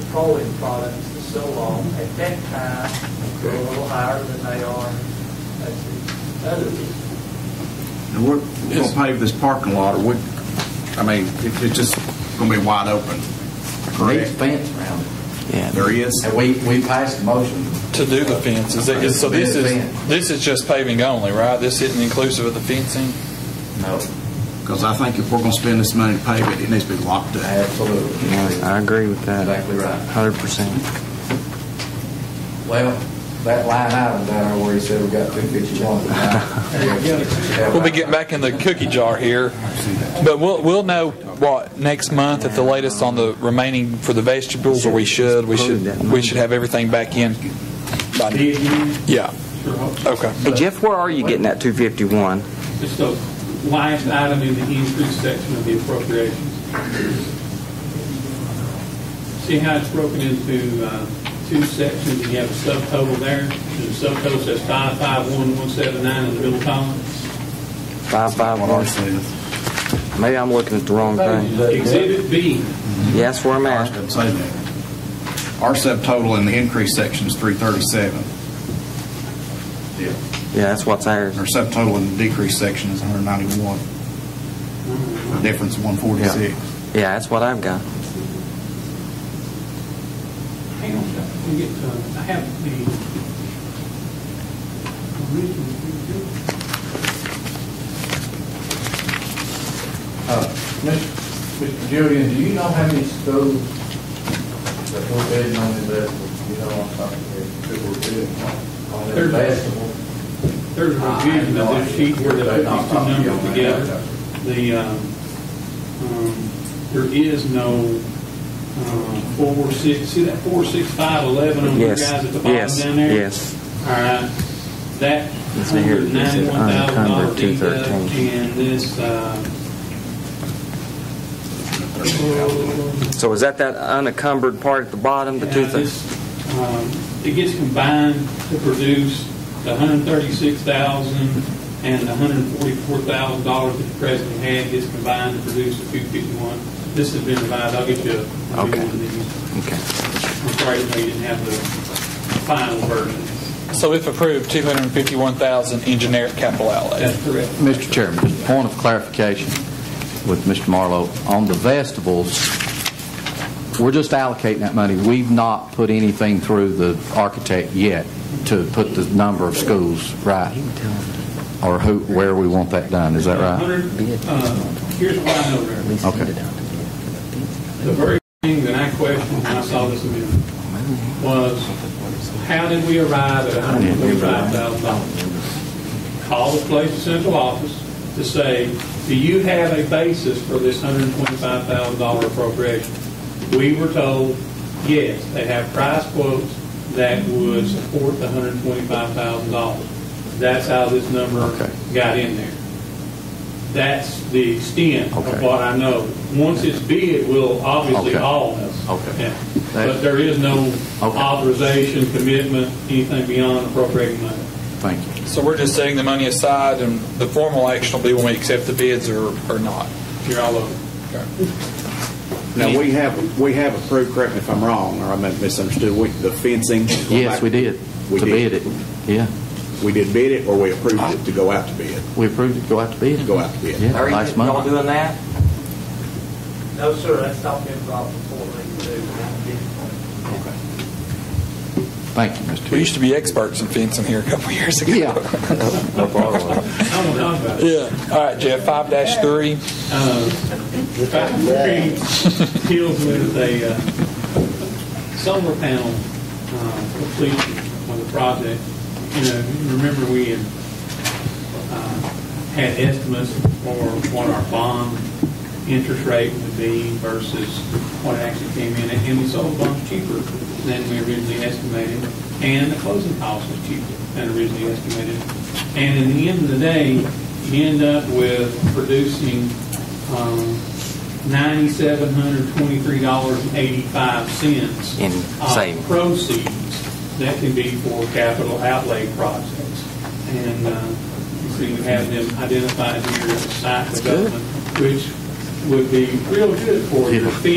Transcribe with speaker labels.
Speaker 1: petroleum products to sell on at that time were a little higher than they are at the others.
Speaker 2: And we're, we're gonna pave this parking lot, or we, I mean, it, it's just gonna be wide open.
Speaker 3: Neat
Speaker 2: Correct?
Speaker 3: fence around it.
Speaker 2: There is.
Speaker 3: And we, we passed a motion.
Speaker 4: To do the fence, is it, is- so this
Speaker 3: To do the
Speaker 4: is,
Speaker 3: fence.
Speaker 4: this is just paving only, right? This isn't inclusive of the fencing?
Speaker 3: No,
Speaker 2: Because I think if we're gonna spend this money to pave it, it needs to be locked up.
Speaker 3: absolutely.
Speaker 5: I agree with that.
Speaker 3: Exactly right.
Speaker 5: Hundred percent.
Speaker 3: Well, that line item down there where he said we got two fifty-one.
Speaker 4: We'll be getting back in the cookie jar here, but we'll, we'll know what, next month at the latest on the remaining for the vegetables, or we should, we should, we should have everything back in. by the- Yeah, okay.
Speaker 5: Hey Jeff, where are you getting that two fifty-one?
Speaker 6: It's the last item in the increase section of the appropriations. See how it's broken into uh, two sections, and you have a subtotal there, and the subtotal says 551179 in the middle column.
Speaker 5: Five five
Speaker 2: What ours
Speaker 5: one.
Speaker 2: says.
Speaker 5: Maybe I'm looking at the wrong thing.
Speaker 6: Exhibit B,
Speaker 5: Yeah, that's where I'm
Speaker 2: Ours
Speaker 5: at.
Speaker 2: doesn't say that. Our subtotal in the increase section is three thirty-seven.
Speaker 5: Yeah, that's what's ours.
Speaker 2: Our subtotal in the decrease section is hundred ninety-one. Difference one forty-six.
Speaker 5: Yeah, that's what I've got.
Speaker 6: hang on, a second. Let me get, uh, I have the original.
Speaker 3: Mr. Uh, Julian, do you know how many schools that were bidding on the vegetables? You know, I'm talking about that were bidding on the
Speaker 6: There's-
Speaker 3: vegetables.
Speaker 6: There's a revision of this sheet where they put these two numbers together. The, um, um, there is no um, four, six, see that four, six, five, eleven on your
Speaker 5: Yes,
Speaker 6: guys at the bottom
Speaker 5: yes,
Speaker 6: down there?
Speaker 5: yes.
Speaker 6: All right, that
Speaker 5: It's in here. uh,
Speaker 6: hundred
Speaker 5: It said
Speaker 6: ninety-one thousand dollar deduct
Speaker 5: unencumbered, 213.
Speaker 6: and this, uh,
Speaker 5: So is that that unencumbered part at the bottom, the
Speaker 6: yeah,
Speaker 5: two
Speaker 6: this,
Speaker 5: things?
Speaker 6: um, it gets combined to produce the hundred thirty-six thousand and the hundred forty-four thousand dollars that the president had gets combined to produce the two fifty-one. This has been revised, I'll get you a a new
Speaker 5: Okay.
Speaker 6: one of these.
Speaker 5: Okay.
Speaker 6: I'm sorry, you know, you didn't have the final version.
Speaker 4: So if approved, 251,000 in generic capital outlay.
Speaker 6: That's correct.
Speaker 7: Mr. Chairman, just a point of clarification with Mr. Marlowe. On the vegetables, we're just allocating that money. We've not put anything through the architect yet to put the number of schools right, or who, where we want that done. Is that right?
Speaker 6: 100, uh, Here's what I know there.
Speaker 7: Okay.
Speaker 6: The very thing that I questioned when I saw this amendment was, how did we arrive at $145,000? Call the place, central office, to say, do you have a basis for this $125,000 appropriation? We were told, yes, they have price quotes that would support the $125,000. That's how this number
Speaker 7: Okay.
Speaker 6: got in there. That's the extent of
Speaker 7: Okay.
Speaker 6: what I know. Once it's bid, we'll obviously
Speaker 7: Okay.
Speaker 6: all know.
Speaker 7: Okay.
Speaker 6: Yeah. But there is no
Speaker 7: Okay.
Speaker 6: authorization, commitment, anything beyond appropriating money.
Speaker 7: Thank you.
Speaker 4: So we're just setting the money aside, and the formal action will be when we accept the bids or, or not.
Speaker 6: You're all over.
Speaker 2: Now, we have, we have approved, correct me if I'm wrong, or I may have misunderstood, we- the fencing.
Speaker 7: Yes, we did,
Speaker 2: We
Speaker 7: to
Speaker 2: did.
Speaker 7: bid it. Yeah,
Speaker 2: We did bid it, or we approved it to go out to bid,
Speaker 7: we approved it, go out to bid.
Speaker 2: go out to bid?
Speaker 7: Yeah,
Speaker 5: Larry,
Speaker 7: last
Speaker 5: y'all
Speaker 7: month.
Speaker 5: doing that?
Speaker 1: No, sir, that's not been brought before they do. that.
Speaker 7: Thank you, Mr.
Speaker 4: We
Speaker 7: Chairman.
Speaker 4: used to be experts in fencing here a couple years ago.
Speaker 7: Yeah,
Speaker 6: I don't know about it.
Speaker 4: Yeah. All right, Jeff, 5-3.
Speaker 6: Uh, If I could deals with a uh, solar panel uh, completion of the project, you know, remember we had uh, had estimates for what our bond interest rate would be versus what actually came in, and we sold bonds cheaper than we originally estimated, and the closing cost was cheaper than originally estimated. And in the end of the day, you end up with producing um, $9,723.85
Speaker 5: In
Speaker 6: of
Speaker 5: savings.
Speaker 6: proceeds that can be for capital outlay projects. And uh, you see, we have them identified here as site development, which would be real good for your fee